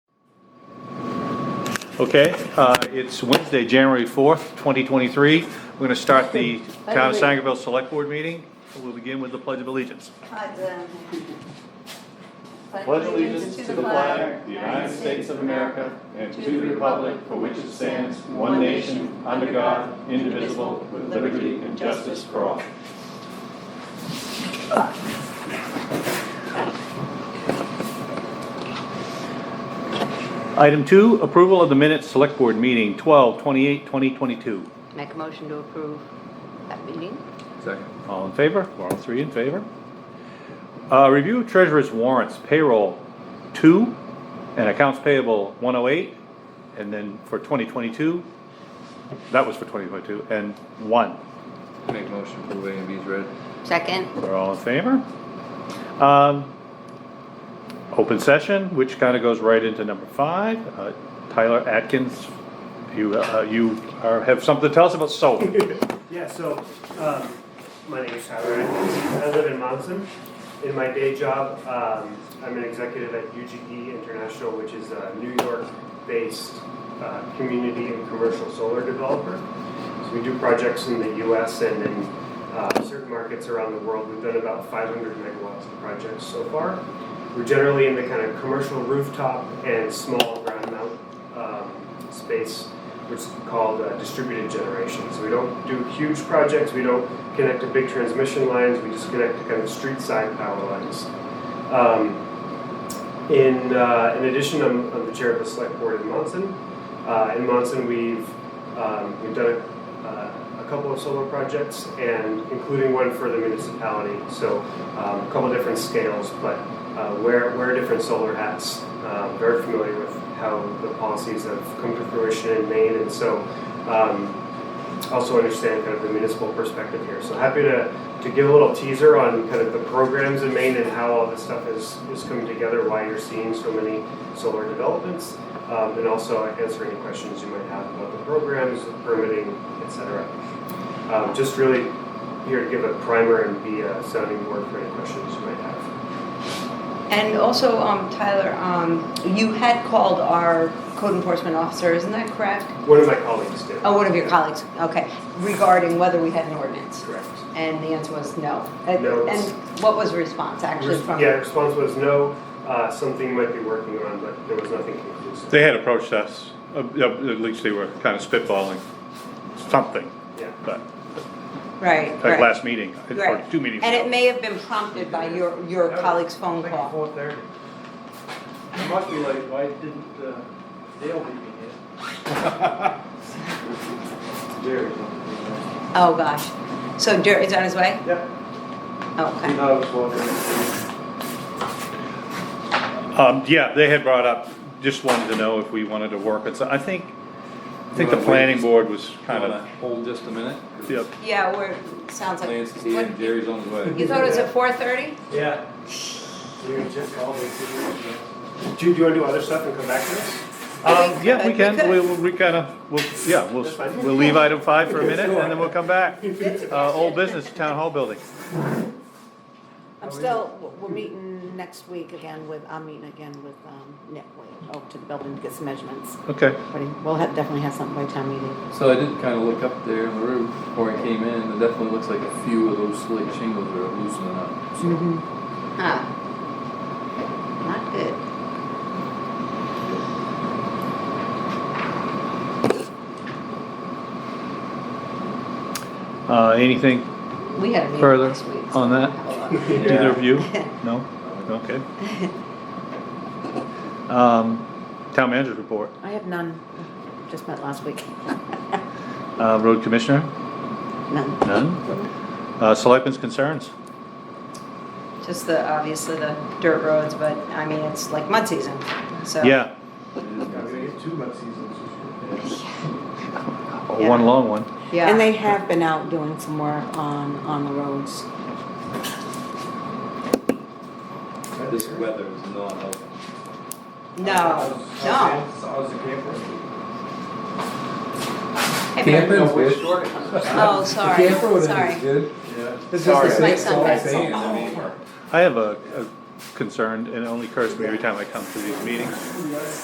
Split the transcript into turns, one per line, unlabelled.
Okay, uh, it's Wednesday, January 4th, 2023. We're going to start the Town of Sangerville Select Board meeting. We'll begin with the Pledge of Allegiance.
Pledge allegiance to the flag, of the United States of America, and to the republic for which it stands, one nation, under God, indivisible, with liberty and justice for all.
Item two, approval of the minutes, Select Board meeting 12/28/2022.
Make a motion to approve that meeting?
Second.
All in favor? We're all three in favor. Uh, Review of treasurer's warrants, payroll 2 and accounts payable 108. And then for 2022, that was for 2022, and 1.
Make motion for A and B's read.
Second?
We're all in favor? Um, Open session, which kind of goes right into number five. Uh, Tyler Atkins, you, uh, you are- have something to tell us about solar.
Yeah, so, um, my name is Tyler Atkins. I live in Monson. In my day job, um, I'm an executive at UGE International, which is a New York-based, uh, community and commercial solar developer. So we do projects in the US and in, uh, certain markets around the world. We've done about five hundred megawatts of projects so far. We're generally in the kind of commercial rooftop and small ground mount, um, space which is called uh, distributed generation. So we don't do huge projects, we don't connect to big transmission lines, we just connect to kind of street side power lines. Um, in, uh, in addition, I'm, I'm the chair of the select board in Monson. Uh, in Monson, we've, um, we've done a, uh, a couple of solar projects and including one for the municipality. So um, a couple different scales, but uh, wear, wear different solar hats. Um, very familiar with how the policies have come to fruition in Maine, and so um, also understand kind of the municipal perspective here. So happy to, to give a little teaser on kind of the programs in Maine and how all this stuff is, is coming together, why you're seeing so many solar developments, um, and also answer any questions you might have about the programs, the permitting, et cetera. Um, just really here to give a primer and be a sounding board for any questions you might have.
And also, um, Tyler, um, you had called our code enforcement officer, isn't that correct?
One of my colleagues did.
Oh, one of your colleagues, okay, regarding whether we had an ordinance.
Correct.
And the answer was no. And-
No.
And what was the response actually
Res-
from?
Yeah, response was no, uh, something might be working on, but there was nothing conclusive.
They had approached us, uh, uh, at least they were kind of spitballing something,
Yeah.
but,
Right,
like
right.
last meeting, or
Right.
two meetings
And it
ago.
may have been prompted by your, your colleague's phone
Like
call.
four thirty. It must be late, why didn't uh, Dale meet me here? Jerry's on
Oh, gosh. So Jerry, is on his way?
the, yeah, he
Okay.
knows what it
Um, yeah, they had brought up, just wanted to know if we wanted to work, it's, I think, I think the
wanna wait?
planning board was kind
Kinda
of,
hold just a minute.
Um,
yep.
Yeah, we're, sounds like.
Lance is here and Jerry's on his way.
You thought it was at four thirty?
is. Yeah. You just called me.
Do you, do you want to do other stuff and come back to this?
Um, yeah, we
could,
can,
we could.
we, we we kind of, we'll, yeah, we'll,
That's fine.
we'll leave item five for a minute, and then we'll come back. Uh, old business, town hall building.
I'm still, we're meeting next week again with, I'm meeting again with um, Nick Wade, over to the building to get some measurements.
Okay,
But we'll have, definitely have something by town meeting.
So I did kinda look up there in the roof before I came in, and it definitely looks like a few of those slate shingles are loosening up. So
Huh. Not good.
uh, anything
We had a meeting
Further
last week.
on that?
that?
Either
Yeah.
of you? No? Okay. Um, Town manager's report,
I have none, just met last week.
Uh, road commissioner,
None.
none. Uh, Selectmen's concerns,
Just the, obviously the dirt roads, but I mean, it's like mud season, so.
yeah,
Yeah, we get two mud seasons this year.
Oh, one long one.
Yeah.
And they have been out doing some work on, on the roads.
This weather is not helping.
No, no.
How's the camper?
Hey, Mary.
No, we're
good.
short.
Oh, sorry, sorry.
good.
Yeah.
It's
Sorry, just my it's all sunbed.
sand, I mean.
I have a, a concern, and it only occurs to me every time I come to these meetings.